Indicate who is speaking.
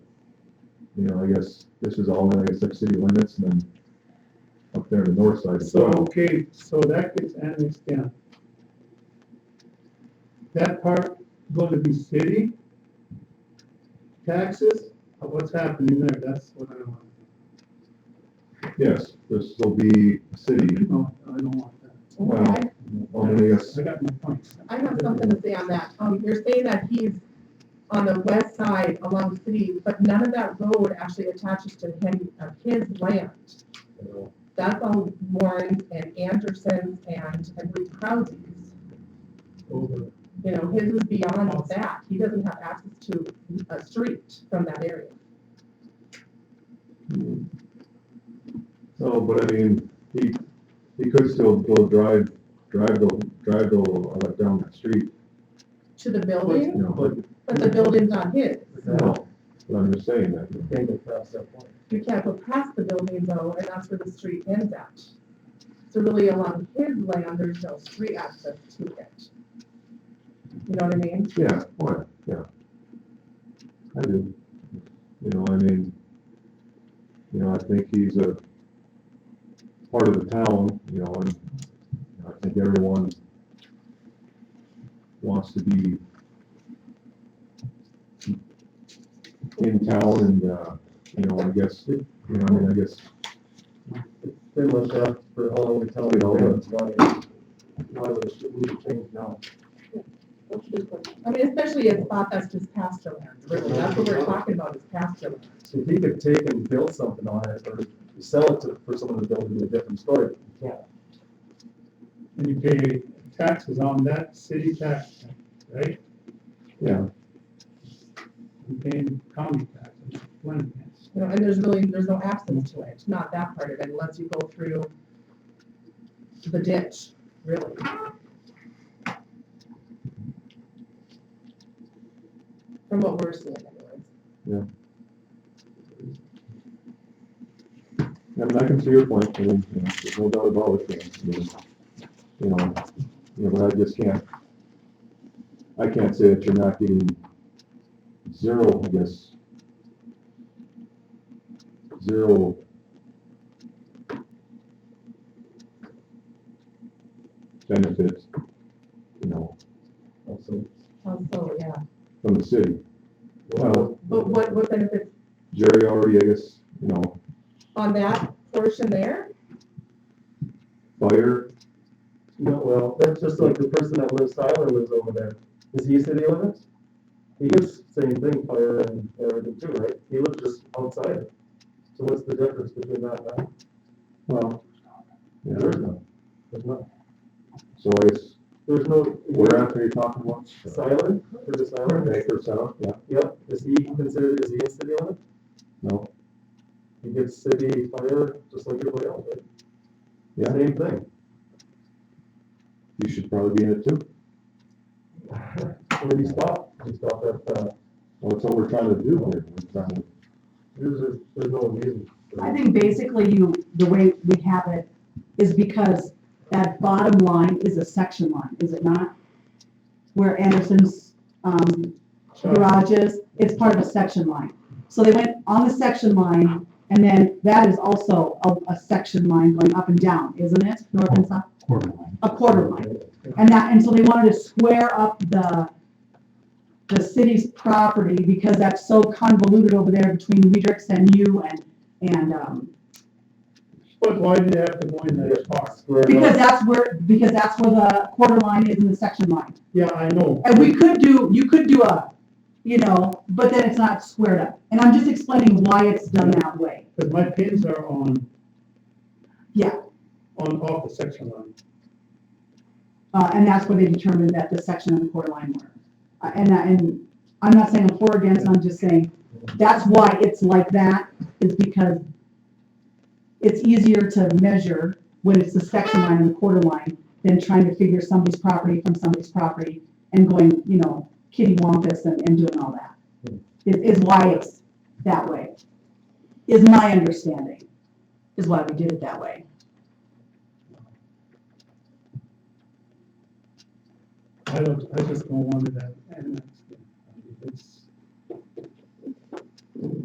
Speaker 1: you know, I guess this is all in, I guess, like city limits and then up there on the north side.
Speaker 2: So, okay, so that gets annexed down. That part going to be city taxes, or what's happening there, that's what I don't want.
Speaker 1: Yes, this will be city,
Speaker 2: No, I don't want that.
Speaker 1: Wow.
Speaker 3: I
Speaker 1: well, I guess,
Speaker 2: I got my points.
Speaker 3: I have something to say on that. Um, you're saying that he's on the west side along the city, but none of that road actually attaches to him, uh, his land. That's all Warren's and Anderson's and, I believe Krause's.
Speaker 2: Over.
Speaker 3: You know, his is beyond that. He doesn't have access to a street from that area.
Speaker 1: no, but I mean, he, he could still go drive, drive the, drive the, uh, down that street,
Speaker 3: To the
Speaker 1: you
Speaker 3: building,
Speaker 1: know, but,
Speaker 3: but the building's not his.
Speaker 1: no, but I'm just saying that. you know.
Speaker 3: You can't go past the building though, and that's where the street ends at. So really along his land, there's no street access to it. You know what I mean?
Speaker 1: Yeah, why, yeah. I do. You know, I mean, you know, I think he's a part of the town, you know, and you know, I think everyone wants to be in town and, uh, you know, I guess, you know, I mean, I guess,
Speaker 4: They looked up for all the telling
Speaker 1: all the-
Speaker 4: why, why was it we should change now?
Speaker 3: I mean, especially a spot that's just pasture land, really, that's what we're talking about, is pasture land.
Speaker 4: If he could take and build something on it or sell it to, for someone to build it in a different story. Yeah.
Speaker 2: And you pay taxes on that city tax, right?
Speaker 1: yeah,
Speaker 2: You pay county taxes, land tax.
Speaker 3: You know, and there's really, there's no access to it, not that part of it, unless you go through the ditch, really. From what we're seeing anyways.
Speaker 1: I mean, I can see your point, I mean, you know, there's no doubt about it, I mean, you know, you know, but I just can't, I can't say that you're not getting zero, I guess, zero. benefits, you know,
Speaker 4: Also,
Speaker 3: Also, yeah,
Speaker 1: from the city. Well,
Speaker 3: but what, what benefits
Speaker 1: Jerry already, I guess, you know,
Speaker 3: on that portion there?
Speaker 1: fire,
Speaker 4: No, well, that's just like the person that lives, Tyler lives over there. Is he city limits? He gets same thing, fire and everything too, right? He lives just outside. it. So what's the difference between that and that?
Speaker 1: well, yeah,
Speaker 4: There is none. There's not,
Speaker 1: so I guess
Speaker 4: there's no.
Speaker 1: We're after you're talking about
Speaker 4: Silent, for the silent?
Speaker 1: acre south, yeah,
Speaker 4: Yep, is he considered, is he a city limit?
Speaker 1: no,
Speaker 4: He gets city fire just like everybody else, right?
Speaker 1: Yeah.
Speaker 4: Same thing.
Speaker 1: you should probably be in it too.
Speaker 4: Where do you stop? You stop at, uh,
Speaker 1: Well, that's what we're trying to do here. We're trying to-
Speaker 4: there's, a- there's no reason. for
Speaker 5: I
Speaker 4: it.
Speaker 5: think basically you, the way we have it is because that bottom line is a section line, is it not? Where Anderson's, um, garage is, it's part of a section line. So they went on the section line, and then that is also a, a section line going up and down, isn't it? North and south,
Speaker 6: quarter line.
Speaker 5: a quarter line. And that, and so they wanted to square up the, the city's property because that's so convoluted over there between Weidrichs and you and, and, um,
Speaker 2: But why do you have to go in that far?
Speaker 4: Square it
Speaker 5: because
Speaker 4: up.
Speaker 5: that's where, because that's where the quarter line is in the section line.
Speaker 2: Yeah, I know.
Speaker 5: And we could do, you could do a, you know, but then it's not squared up. And I'm just explaining why it's done that way.
Speaker 2: Because my pins are on.
Speaker 5: Yeah.
Speaker 2: On off the section line.
Speaker 5: Uh, and that's where they determined that the section and the quarter line were. Uh, and, I- and I'm not saying I'm for or against, I'm just saying, that's why it's like that, is because it's easier to measure when it's the section line and the quarter line than trying to figure somebody's property from somebody's property and going, you know, kitty wampus and, and doing all that. Is, is why it's that way, is my understanding, is why we did it that way.
Speaker 2: I don't, I just don't want it that, and that's, it's,